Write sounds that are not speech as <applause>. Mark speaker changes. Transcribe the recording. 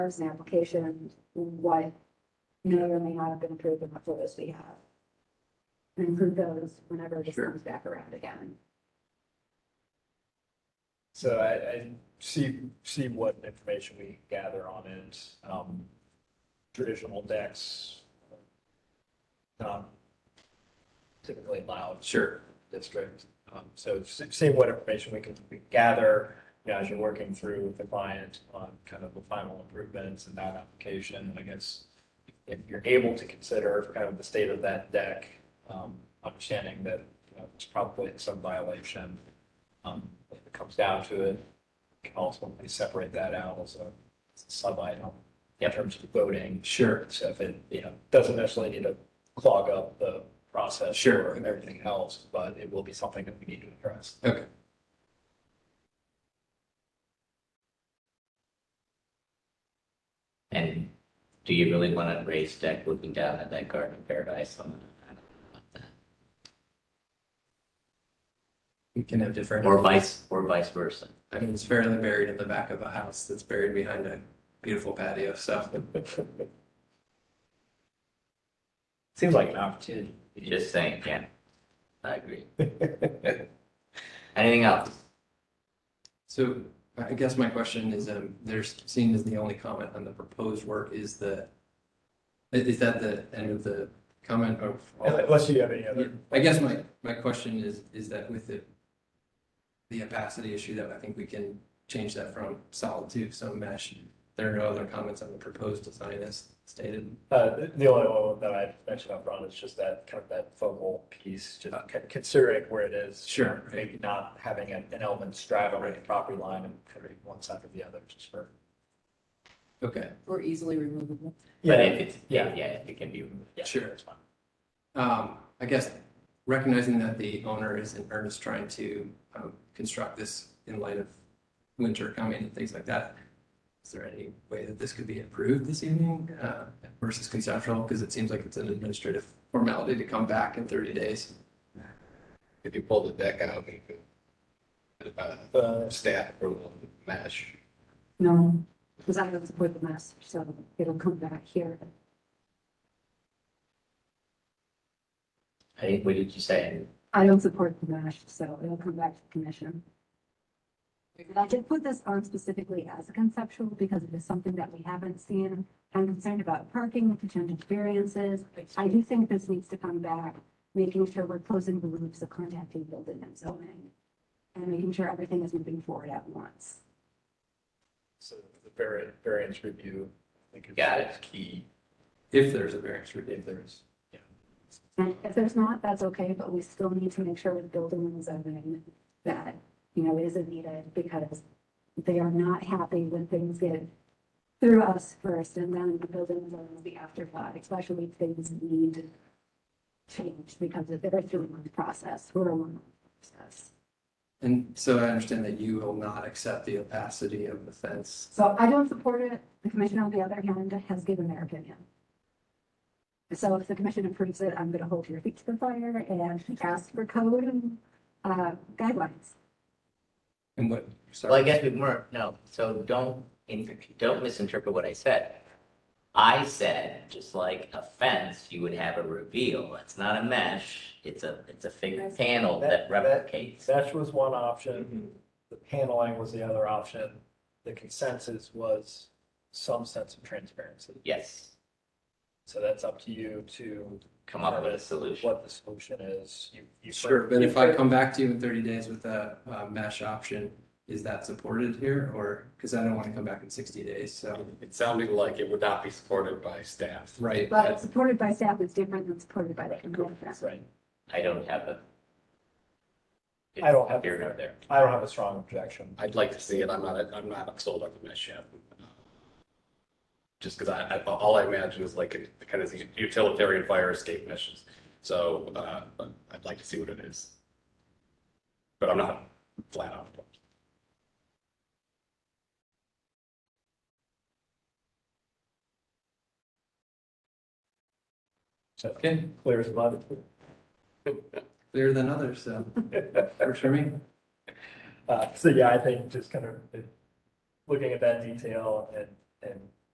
Speaker 1: as an application, what may or may not have been approved and what photos we have. And include those whenever this
Speaker 2: Sure.
Speaker 1: comes back around again.
Speaker 3: So I, I see, see what information we gather on it. Um, traditional decks, not um, typically loud
Speaker 2: Sure.
Speaker 3: district. Um, so s- see what information we can we gather, you know, as you're working through with the client on kind of the final improvements in that application. I guess if you're able to consider kind of the state of that deck, um, understanding that you know, it's probably some violation. Um, if it comes down to it, you can ultimately separate that out as a sub item in terms of voting.
Speaker 2: Sure.
Speaker 3: So if it, you know, doesn't necessarily need to clog up the process.
Speaker 2: Sure.
Speaker 3: And everything else, but it will be something that we need to address.
Speaker 2: Okay.
Speaker 4: And do you really want to raise deck looking down at that garden of paradise? on-
Speaker 5: We can have different,
Speaker 4: Or vice, or vice versa?
Speaker 5: I mean, it's fairly buried in the back of a house that's buried behind a beautiful patio, so.
Speaker 3: Seems like an opportunity.
Speaker 4: Just saying, yeah.
Speaker 3: <laughs>
Speaker 4: I agree. Anything else?
Speaker 5: So I guess my question is, um, there's seen as the only comment on the proposed work is the, i- is that the end of the comment of? all-
Speaker 3: Unless you have any
Speaker 5: Yeah,
Speaker 3: other,
Speaker 5: I guess my, my question is, is that with the, the opacity issue that I think we can change that from solid to some mesh. There are no other comments on the proposed design as stated.
Speaker 3: uh, the- the only one that I mentioned up front is just that kind of that focal piece, just con- considering where it is.
Speaker 5: Sure.
Speaker 3: Maybe not having an an element straddling the property line and cutting one side or the other, just for.
Speaker 5: Okay,
Speaker 6: Or easily removable.
Speaker 4: But if it's,
Speaker 3: yeah.
Speaker 4: yeah, yeah, if it can be.
Speaker 3: Yeah,
Speaker 5: Sure.
Speaker 3: that's fine.
Speaker 5: Um, I guess recognizing that the owner is in earnest trying to um, construct this in light of winter coming and things like that. Is there any way that this could be approved this evening uh, versus conceptual? Because it seems like it's an administrative formality to come back in 30 days.
Speaker 7: If you pull the deck out, you could, uh,
Speaker 3: Uh,
Speaker 7: staff approval, mesh.
Speaker 1: No, because I don't support the mess, so it'll come back here.
Speaker 4: I think, what did you say?
Speaker 1: I don't support the mash, so it'll come back to the commission. And I did put this on specifically as a conceptual because it is something that we haven't seen. I'm concerned about parking, potential variances. I do think this needs to come back, making sure we're closing the loops of contacting building and zoning. And making sure everything is moving forward at once.
Speaker 3: So the variant, variance review, I think is
Speaker 4: Got it.
Speaker 3: is key
Speaker 5: If there's a variance review,
Speaker 3: if there is.
Speaker 1: And if there's not, that's okay, but we still need to make sure with building and zoning that, you know, it isn't needed because they are not happy when things get through us first and then the building and zoning will be afterthought, especially if things need change because of the two-month process, we're a one-month process.
Speaker 5: and so I understand that you will not accept the opacity of the fence.
Speaker 1: So I don't support it. The commission, on the other hand, has given their opinion. So if the commission approves it, I'm gonna hold your feet to the fire and ask for code and, uh, guidelines.
Speaker 5: And what,
Speaker 4: Well, I
Speaker 5: sorry,
Speaker 4: guess we weren't, no, so don't, in- don't misinterpret what I said. I said, just like a fence, you would have a reveal. It's not a mesh, it's a, it's a figured panel
Speaker 3: That-
Speaker 4: that
Speaker 3: that-
Speaker 4: replicates.
Speaker 3: That was one option, the paneling was the other option, the consensus was some sense of transparency.
Speaker 4: Yes,
Speaker 3: So that's up to you to.
Speaker 4: come up with a
Speaker 3: determine
Speaker 4: solution.
Speaker 3: What the solution is. You- you-
Speaker 5: sure, but if I come back to you in 30 days with a uh, mesh option, is that supported here? Or, because I don't want to come back in 60 days, so.
Speaker 7: It sounded like it would not be supported by staff.
Speaker 5: Right.
Speaker 1: But supported by staff is different than supported by the commission.
Speaker 3: Right.
Speaker 4: I don't have a.
Speaker 3: I don't have-
Speaker 4: Here nor there.
Speaker 3: I don't have a strong objection.
Speaker 7: I'd like to see it. I'm not, I'm not sold on the mesh yet. Just because I, I, all I imagine is like a- kind of these utilitarian fire escape meshes. So, uh, I'd like to see what it is. But I'm not flat out.
Speaker 3: So
Speaker 5: Okay,
Speaker 3: clear as mud.
Speaker 5: clearer than others, <laughs> so for sure me.
Speaker 3: Uh, so yeah, I think just kind of uh, looking at that detail and, and